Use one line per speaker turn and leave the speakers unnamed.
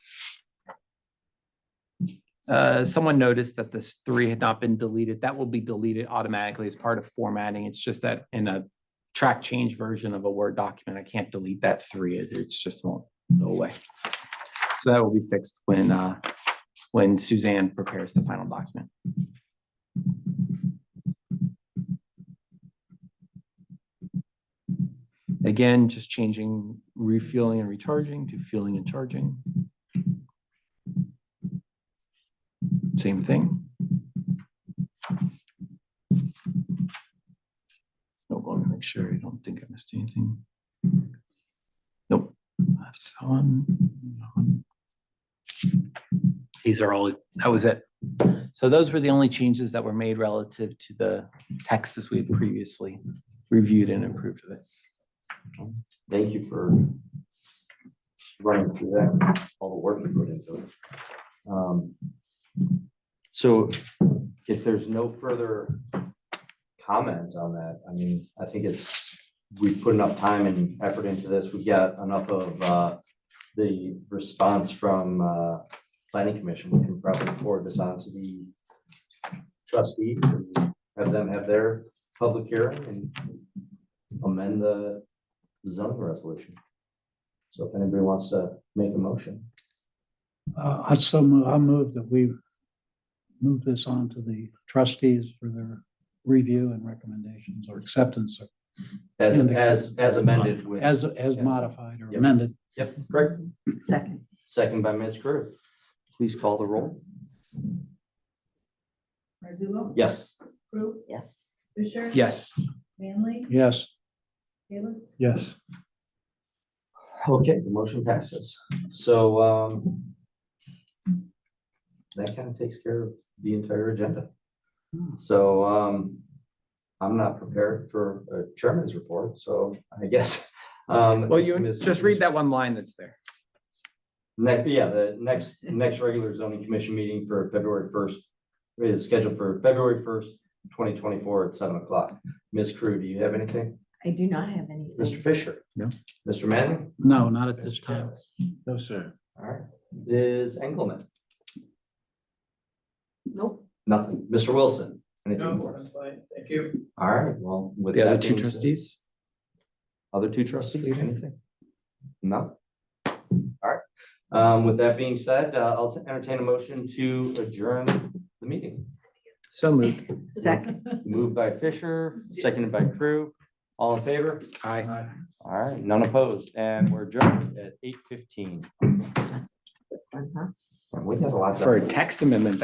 Uh, someone noticed that this three had not been deleted. That will be deleted automatically as part of formatting. It's just that in a track change version of a Word document, I can't delete that three. It- It's just won't go away. So that will be fixed when, uh, when Suzanne prepares the final document. Again, just changing refueling and recharging to fueling and charging. Same thing. Nope, let me make sure I don't think I missed anything. Nope. That's the one. that one. These are all, that was it. So those were the only changes that were made relative to the text as we had previously reviewed and improved of it.
Thank you for running through that, all the work you put into it. Um, So if there's no further comment on that, I mean, I think it's, we've put enough time and effort into this. We got enough of uh, the response from uh, planning commission. We can probably forward this on to the trustees and have them have their public hearing and amend the zoning resolution. So if anybody wants to make a motion,
Uh, I so move, I move that we move this on to the trustees for their review and recommendations or acceptance or
as,
And the-
as, as amended with.
as, as modified or amended.
Yep, correct.
Second.
Second by Ms. Curtis. Please call the roll.
Marzullo?
Yes.
Proof?
Yes.
Fisher?
Yes.
Manley?
Yes.
Kalis?
Yes.
Okay, the motion passes. So, um, that kind of takes care of the entire agenda. So, um, I'm not prepared for a chairman's report, so I guess, um.
Well, you
Ms.
just read that one line that's there.
Next, yeah, the next, next regular zoning commission meeting for February first is scheduled for February first, twenty twenty-four at seven o'clock. Ms. Crew, do you have anything?
I do not have anything.
Mr. Fisher?
No.
Mr. Manning?
No, not at this time.
No, sir.
All right, Ms. Engelmann?
Nope.
Nothing. Mr. Wilson? Anything for us?
Thank you.
All right, well, with.
The other
that
two
being said-
trustees?
Other two trustees, anything? No? All right, um, with that being said, uh, I'll entertain a motion to adjourn the meeting.
So moved.
Second.
Moved by Fisher, seconded by Crew. All in favor?
Aye.
All right, none opposed, and we're adjourned at eight fifteen.
One, huh?
We got a lot. done.
For a text amendment,